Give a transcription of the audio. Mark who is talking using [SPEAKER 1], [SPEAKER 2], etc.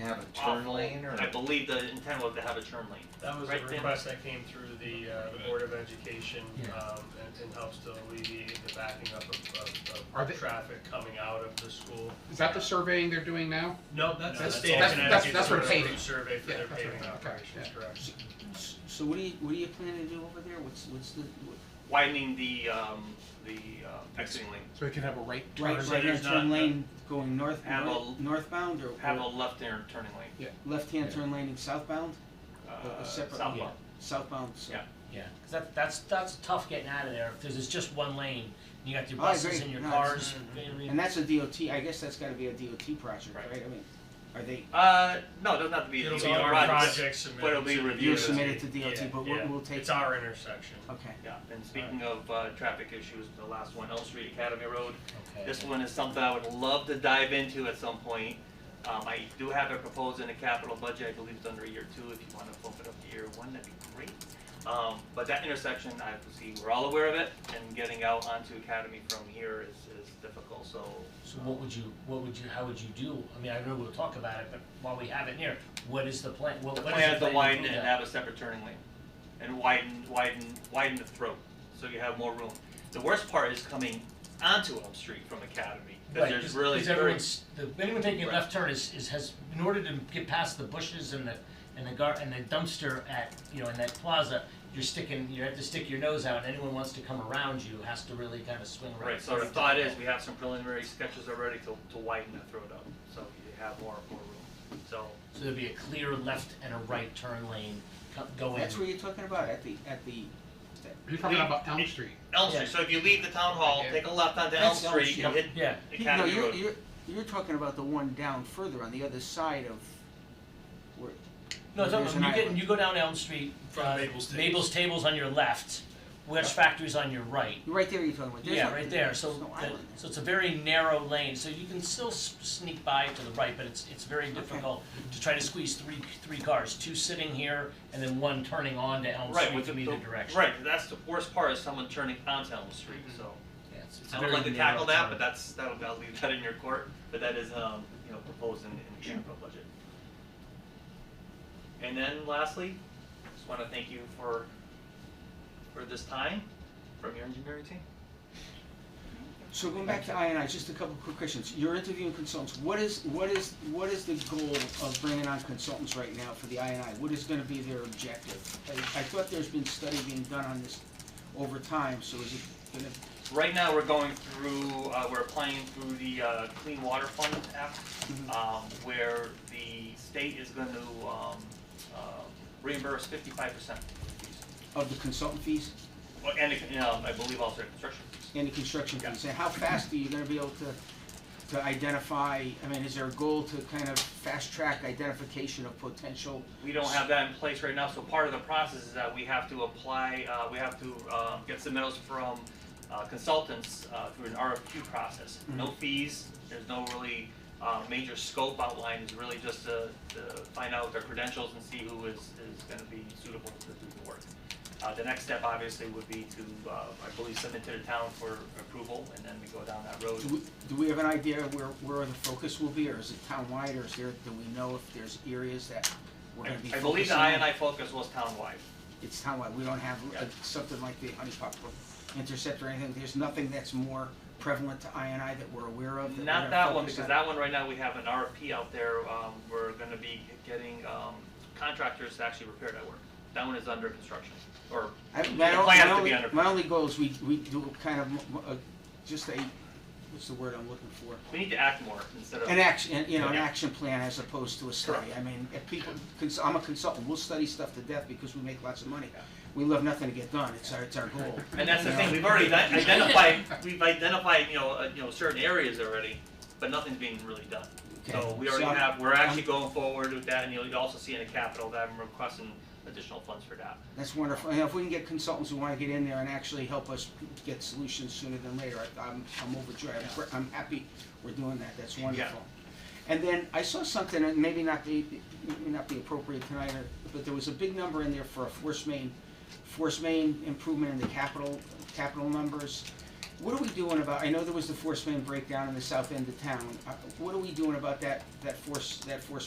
[SPEAKER 1] have a turn
[SPEAKER 2] off
[SPEAKER 1] lane or?
[SPEAKER 2] I believe the intent was to have a turn lane.
[SPEAKER 3] That was a
[SPEAKER 2] Right, Dan?
[SPEAKER 3] request that came through the, uh, the Board of Education,
[SPEAKER 1] Yeah.
[SPEAKER 3] um, and, and helps to alleviate the backing up of, of,
[SPEAKER 4] Are
[SPEAKER 3] of
[SPEAKER 4] they-
[SPEAKER 3] traffic coming out of the school.
[SPEAKER 4] Is that the surveying they're doing now?
[SPEAKER 3] No, that's the
[SPEAKER 4] That's-
[SPEAKER 3] state of
[SPEAKER 4] that's- that's-
[SPEAKER 3] Connecticut,
[SPEAKER 4] that's for
[SPEAKER 3] sort of
[SPEAKER 4] paving.
[SPEAKER 3] route survey for
[SPEAKER 4] Yeah,
[SPEAKER 3] their
[SPEAKER 4] that's for
[SPEAKER 3] paving
[SPEAKER 4] paving, okay,
[SPEAKER 3] operations,
[SPEAKER 4] yeah.
[SPEAKER 3] correct?
[SPEAKER 5] S- So what do you, what do you plan to do over there? What's, what's the, what-
[SPEAKER 2] Widening the, um, the, uh, exiting lane,
[SPEAKER 4] So we can have a right
[SPEAKER 5] right,
[SPEAKER 4] turn?
[SPEAKER 2] so
[SPEAKER 5] right,
[SPEAKER 2] there's
[SPEAKER 5] turn
[SPEAKER 2] not-
[SPEAKER 5] lane going north,
[SPEAKER 2] Have
[SPEAKER 5] north-
[SPEAKER 2] a-
[SPEAKER 5] northbound or?
[SPEAKER 2] have a left turn turning lane,
[SPEAKER 5] Left-hand turn lane and southbound, a-
[SPEAKER 2] uh,
[SPEAKER 5] a separate?
[SPEAKER 2] southbound.
[SPEAKER 5] Southbound, so.
[SPEAKER 2] Yeah.
[SPEAKER 6] Yeah, 'cause that, that's, that's tough getting out of there, because it's just one lane, and you got your
[SPEAKER 5] Oh, I
[SPEAKER 6] buses
[SPEAKER 5] agree.
[SPEAKER 6] and your
[SPEAKER 5] No,
[SPEAKER 6] cars,
[SPEAKER 5] it's-
[SPEAKER 6] you know what I mean?
[SPEAKER 5] And that's a DOT, I guess that's gotta be a DOT project,
[SPEAKER 2] Right.
[SPEAKER 5] right? I mean, are they,
[SPEAKER 2] Uh, no, it doesn't have to be.
[SPEAKER 3] It'll
[SPEAKER 2] it's
[SPEAKER 3] be
[SPEAKER 2] a
[SPEAKER 3] our
[SPEAKER 2] rod.
[SPEAKER 3] project submitted
[SPEAKER 2] but it'll be
[SPEAKER 3] to the
[SPEAKER 2] reviewed.
[SPEAKER 5] you
[SPEAKER 2] DOT,
[SPEAKER 5] submitted to
[SPEAKER 3] Yeah,
[SPEAKER 5] DOT, but
[SPEAKER 2] yeah.
[SPEAKER 5] we'll, we'll take,
[SPEAKER 3] It's our intersection.
[SPEAKER 5] okay.
[SPEAKER 2] Yeah, and speaking of, uh, traffic issues, the last one, Elm Street Academy Road,
[SPEAKER 6] Okay.
[SPEAKER 2] This one is something I would love to dive into at some point. Um, I do have it proposed in the capital budget, I believe it's under year two, if you wanna bump it up to year one, that'd be great. Um, but that intersection, I see, we're all aware of it, and getting out onto Academy from here is, is difficult, so.
[SPEAKER 6] So what would you, what would you, how would you do? I mean, I know we'll talk about it, but while we have it near, what is the plan, what,
[SPEAKER 2] The
[SPEAKER 6] what is the
[SPEAKER 2] plan is to
[SPEAKER 6] plan
[SPEAKER 2] widen
[SPEAKER 6] do
[SPEAKER 2] and
[SPEAKER 6] that?
[SPEAKER 2] have a separate turning lane, and widen, widen, widen the throat, so you have more room. The worst part is coming onto Elm Street from Academy, cause
[SPEAKER 6] Right,
[SPEAKER 2] there's really
[SPEAKER 6] Cause
[SPEAKER 2] very,
[SPEAKER 6] everyone's, the, anyone taking a
[SPEAKER 2] Right.
[SPEAKER 6] left turn is, is, has, in order to get past the bushes and the, and the gar, and the dumpster at, you know, in that plaza, you're sticking, you have to stick your nose out, and anyone wants to come around you has to really kind of swing around.
[SPEAKER 2] Right, so the thought is, we have some preliminary sketches already to, to widen the throat up, so you have more, more room. So,
[SPEAKER 6] So there'd be a clear left and a right turn lane co- going.
[SPEAKER 5] That's what you're talking about, at the, at the,
[SPEAKER 4] You're talking about Elm Street.
[SPEAKER 2] Elm Street, so if you leave the town hall,
[SPEAKER 4] Yeah.
[SPEAKER 2] take a left onto Elm
[SPEAKER 5] That's Elm
[SPEAKER 2] Street, you hit
[SPEAKER 5] Street.
[SPEAKER 6] Yeah,
[SPEAKER 5] no,
[SPEAKER 2] Academy
[SPEAKER 5] you're,
[SPEAKER 2] Road.
[SPEAKER 5] you're, you're talking about the one down further on the other side of where,
[SPEAKER 6] no, it's,
[SPEAKER 5] There's
[SPEAKER 6] when you
[SPEAKER 5] an
[SPEAKER 6] get,
[SPEAKER 5] island.
[SPEAKER 6] you go down Elm Street.
[SPEAKER 3] From
[SPEAKER 6] uh,
[SPEAKER 3] Mabel's Tables.
[SPEAKER 6] Mabel's Tables on your left, Wedge Factory's on your right.
[SPEAKER 5] right there you're talking about. There's
[SPEAKER 6] Yeah,
[SPEAKER 5] no-
[SPEAKER 6] right there, so,
[SPEAKER 5] there's no
[SPEAKER 6] that-
[SPEAKER 5] island there.
[SPEAKER 6] so it's a very narrow lane, so you can still s- sneak by to the right, but it's, it's very difficult to try to squeeze three, three cars, two sitting here, and then one turning on to Elm
[SPEAKER 2] Right,
[SPEAKER 6] Street
[SPEAKER 2] with the,
[SPEAKER 6] from
[SPEAKER 2] the,
[SPEAKER 6] either direction.
[SPEAKER 2] right, that's the worst part is someone turning onto Elm Street, so.
[SPEAKER 6] Yeah, it's- Mm-hmm. it's
[SPEAKER 2] I
[SPEAKER 6] a
[SPEAKER 2] would
[SPEAKER 6] very
[SPEAKER 2] like to
[SPEAKER 6] narrow
[SPEAKER 2] tackle that,
[SPEAKER 6] turn.
[SPEAKER 2] but that's, that'll, I'll leave that in your court, but that is, um, you know, proposed in, in the capital budget. And then lastly, just wanna thank you for, for this time from your engineering team.
[SPEAKER 5] So going back to INI, just a couple quick questions. You're interviewing consultants. What is, what is, what is the goal of bringing on consultants right now for the INI? What is gonna be their objective? I, I thought there's been study being done on this over time, so is it gonna,
[SPEAKER 2] Right now, we're going through, uh, we're applying through the, uh, Clean Water Fund app, um, where the state is gonna, um, uh, reimburse fifty-five percent.
[SPEAKER 5] of the consultant fees
[SPEAKER 2] Well, and, you know, I believe also construction fees.
[SPEAKER 5] and the construction fees? And how fast are you gonna be able to, to identify, I mean, is there a goal to kind of fast-track identification of potential?
[SPEAKER 2] We don't have that in place right now, so part of the process is that we have to apply, uh, we have to, uh, get submittals from, uh, consultants, uh, through an RFQ process.
[SPEAKER 5] Mm-hmm.
[SPEAKER 2] No fees, there's no really, uh, major scope outlined, it's really just to, to find out their credentials and see who is, is gonna be suitable to do the work. Uh, the next step obviously would be to, uh, I believe submit to the town for approval, and then we go down that road.
[SPEAKER 5] Do we, do we have an idea where, where the focus will be, or is it townwide, or is there, do we know if there's areas that we're gonna be
[SPEAKER 2] I- I
[SPEAKER 5] focusing on?
[SPEAKER 2] believe the I and I focus was townwide.
[SPEAKER 5] It's townwide, we don't have uh,
[SPEAKER 2] Yeah.
[SPEAKER 5] something like the honey pot intercept or anything, there's nothing that's more prevalent to I and I that we're aware of that
[SPEAKER 2] Not that one,
[SPEAKER 5] we
[SPEAKER 2] because that one right now, we have an RFP out there, um, we're gonna be getting, um, contractors to actually repair that work. That one is under construction, or,
[SPEAKER 5] my
[SPEAKER 2] the
[SPEAKER 5] only-
[SPEAKER 2] plan
[SPEAKER 5] my
[SPEAKER 2] has to
[SPEAKER 5] only-
[SPEAKER 2] be under-
[SPEAKER 5] My only goal is we, we do kind of, m- m- uh, just a, what's the word I'm looking for?
[SPEAKER 2] we need to act more instead of.
[SPEAKER 5] An action, you know, an
[SPEAKER 2] Yeah.
[SPEAKER 5] action plan as opposed to a study. I mean, if people, cons- I'm a consultant, we'll study stuff to death because we make lots of money. We love nothing to get done, it's our, it's our goal.
[SPEAKER 2] And that's the
[SPEAKER 5] you
[SPEAKER 2] thing,
[SPEAKER 5] know.
[SPEAKER 2] we've already di- identified, we've identified, you know, uh, you know, certain areas already, but nothing's being really done. So
[SPEAKER 5] Okay,
[SPEAKER 2] we already
[SPEAKER 5] I'm-
[SPEAKER 2] have, we're actually going forward with that, and you'll you'll also see in the capital that I'm requesting additional funds for that.
[SPEAKER 5] That's wonderful. And if we can get consultants who wanna get in there and actually help us get solutions sooner than later, I- I'm, I'm overjoyed. I'm, gr- I'm happy we're doing that. That's wonderful. And then I saw something, and maybe not the, maybe not the appropriate tonight, or- but there was a big number in there for a force main, force main improvement in the capital, capital numbers. What are we doing about, I know there was the force main breakdown in the south end of town. Uh, What are we doing about that, that force, that force